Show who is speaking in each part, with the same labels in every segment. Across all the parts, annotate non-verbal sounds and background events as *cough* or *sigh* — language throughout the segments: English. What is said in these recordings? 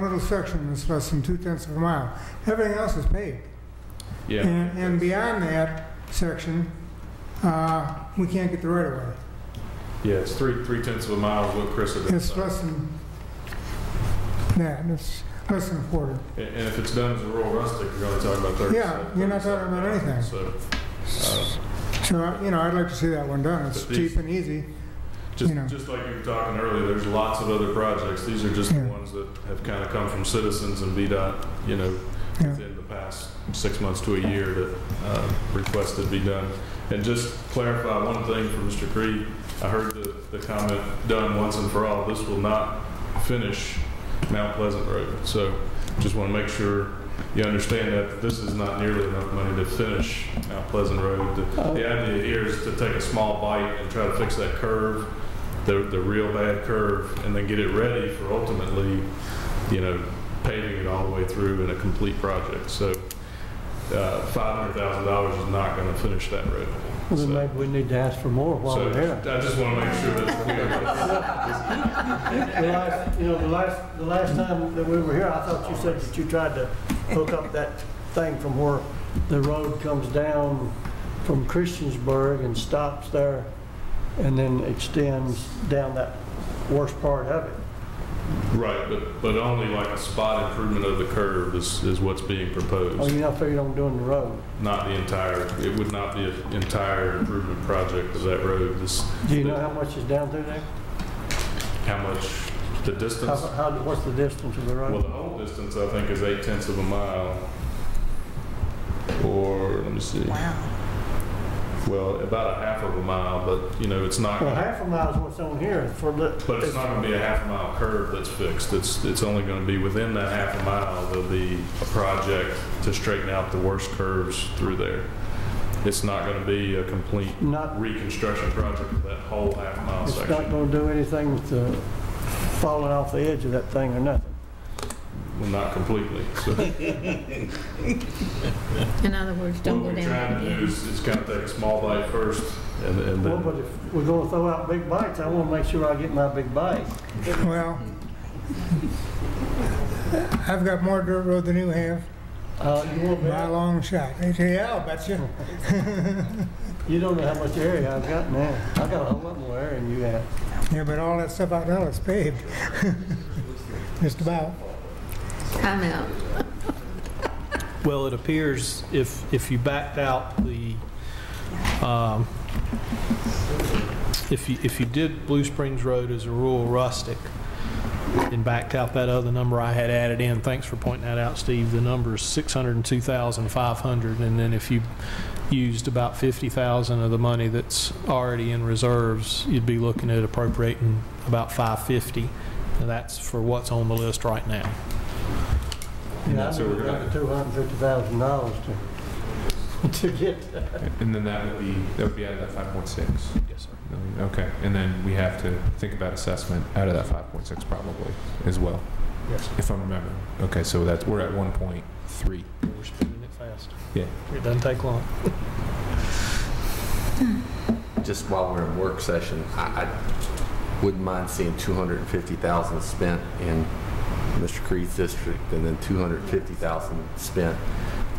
Speaker 1: little section that's less than two tenths of a mile. Everything else is paved.
Speaker 2: Yeah,
Speaker 1: And, and beyond that section, uh, we can't get the right of way.
Speaker 2: yeah, it's three, three tenths of a mile is what Chris had been
Speaker 1: It's
Speaker 2: saying.
Speaker 1: less than that, it's less than a quarter.
Speaker 2: And and if it's done as a rural rustic, you're only talking about thirty.
Speaker 1: Yeah, you're not talking about anything.
Speaker 2: So, uh,
Speaker 1: So, uh, you know, I'd like to see that one done. It's
Speaker 2: But these-
Speaker 1: cheap and easy.
Speaker 2: just,
Speaker 1: You know.
Speaker 2: just like you were talking earlier, there's lots of other projects. These are just the
Speaker 1: Yeah.
Speaker 2: ones that have kind of come from citizens and VDOT, you know,
Speaker 1: Yeah.
Speaker 2: within the past six months to a year that uh, requested be done. And just clarify one thing for Mr. Creed, I heard the, the comment, done once and for all, this will not finish Mount Pleasant Road. So just want to make sure you understand that this is not nearly enough money to finish Mount Pleasant Road. The
Speaker 3: Oh.
Speaker 2: the idea here is to take a small bite and try to fix that curve, the, the real bad curve, and then get it ready for ultimately, you know, paving it all the way through in a complete project. So uh, $500,000 is not going to finish that road.
Speaker 3: Well,
Speaker 2: So-
Speaker 3: then maybe we need to ask for more while
Speaker 2: so I
Speaker 3: we're there.
Speaker 2: just want to make sure that we
Speaker 3: *laughs* The last, you know, the last, the last time that we were here, I thought you said that you tried to hook up that thing from where the road comes down from Christiansburg and stops there and then extends down that worst part of it.
Speaker 2: Right, but, but only like a spot improvement of the curve is, is what's being
Speaker 3: Oh,
Speaker 2: proposed,
Speaker 3: you're not figuring on doing the road?
Speaker 2: not the entire, it would not be an entire improvement project of that road, this,
Speaker 3: Do you know how much is down through there?
Speaker 2: how much, the
Speaker 3: How,
Speaker 2: distance?
Speaker 3: how, what's the distance of the
Speaker 2: Well,
Speaker 3: road?
Speaker 2: the whole distance, I think, is eight tenths of a mile, or, let me see,
Speaker 4: Wow.
Speaker 2: well, about a half of a mile, but, you know, it's not,
Speaker 3: Well,
Speaker 2: gonna-
Speaker 3: half a mile is what's on here for the.
Speaker 2: but it's not going to be a half a mile curve that's fixed, it's, it's only going to be within that half a mile, there'll be a project to straighten out the worst curves through there. It's not going to be a complete
Speaker 3: Not
Speaker 2: reconstruction project of that whole half mile
Speaker 3: It's not
Speaker 2: section.
Speaker 3: gonna do anything with the falling off the edge of that thing or nothing.
Speaker 2: Well, not completely. So
Speaker 4: In other words,
Speaker 2: what
Speaker 4: don't go
Speaker 2: we're trying to do
Speaker 4: down.
Speaker 2: is, is kind of take a small bite first and, and
Speaker 3: Well, but
Speaker 2: then.
Speaker 3: if we're gonna throw out big bites, I wanna make sure I get my big bite.
Speaker 1: Well, I've got more dirt road than you have,
Speaker 3: Uh, you won't
Speaker 1: by a
Speaker 3: bet,
Speaker 1: long shot. They say, Yeah, I'll bet you.
Speaker 3: you don't know how much area I've got now. I got a whole lot more area than you have.
Speaker 1: Yeah, but all that stuff out there is paved. *laughs* Just about.
Speaker 4: Time out.
Speaker 5: Well, it appears if, if you backed out the, um, if you, if you did Blue Springs Road as a rural rustic and backed out that other number I had added in, thanks for pointing that out, Steve, the number is 602,500. And then if you used about 50,000 of the money that's already in reserves, you'd be looking at appropriating about 550. And that's for what's on the list right now.
Speaker 3: You know, I
Speaker 2: that's what we're gonna-
Speaker 3: Two hundred and fifty thousand dollars to, *laughs* to get,
Speaker 6: And then that would be, that would be out of that five point six?
Speaker 5: Yes, sir.
Speaker 6: Okay, and then we have to think about assessment out of that five point six probably as well,
Speaker 5: Yes.
Speaker 6: if I'm remembering. Okay, so that's, we're at one point three.
Speaker 5: We're spinning it fast.
Speaker 6: Yeah.
Speaker 5: It doesn't take long.
Speaker 7: just while we're in work session, I, I wouldn't mind seeing 250,000 spent in Mr. Creed's district, and then 250,000 spent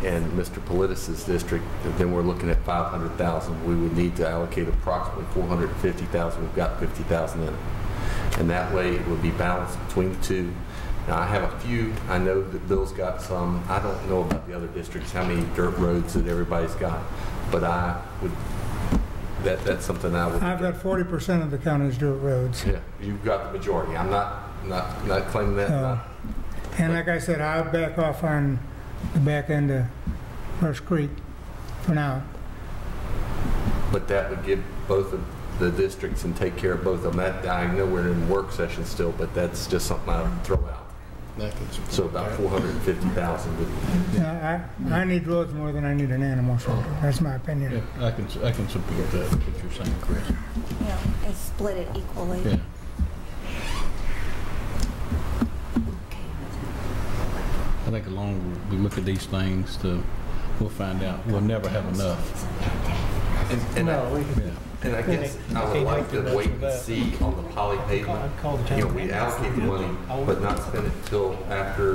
Speaker 7: in Mr. Politis's district, and then we're looking at 500,000. We would need to allocate approximately 450,000, we've got 50,000 in it. And that way, it would be balanced between the two. Now, I have a few, I know that Bill's got some, I don't know about the other districts, how many dirt roads that everybody's got, but I would that, that's something I would.
Speaker 1: I've got 40% of the county's dirt roads.
Speaker 7: Yeah, you've got the majority. I'm not, not, not claiming that.
Speaker 1: Uh,
Speaker 7: not-
Speaker 1: And like I said, I'll back off on the back end of Rush Creek for now.
Speaker 7: But that would give both of the districts and take care of both of them. That, I know we're in work session still, but that's just something I would throw out. So about 450,000 would
Speaker 1: Uh, I, I need roads more than I need an animal shelter. That's my opinion.
Speaker 8: I can, I can support that, what you're saying, Chris.
Speaker 9: Yeah, and split it equally.
Speaker 8: Yeah. I think the longer we look at these things, the, we'll find out, we'll never have enough.
Speaker 7: And, and I-
Speaker 3: no, we,
Speaker 8: Yeah.
Speaker 7: And I guess I would like to wait and see on the poly pavement.
Speaker 5: I'd call the town.
Speaker 7: You know, we allocate the money, but not spend it till after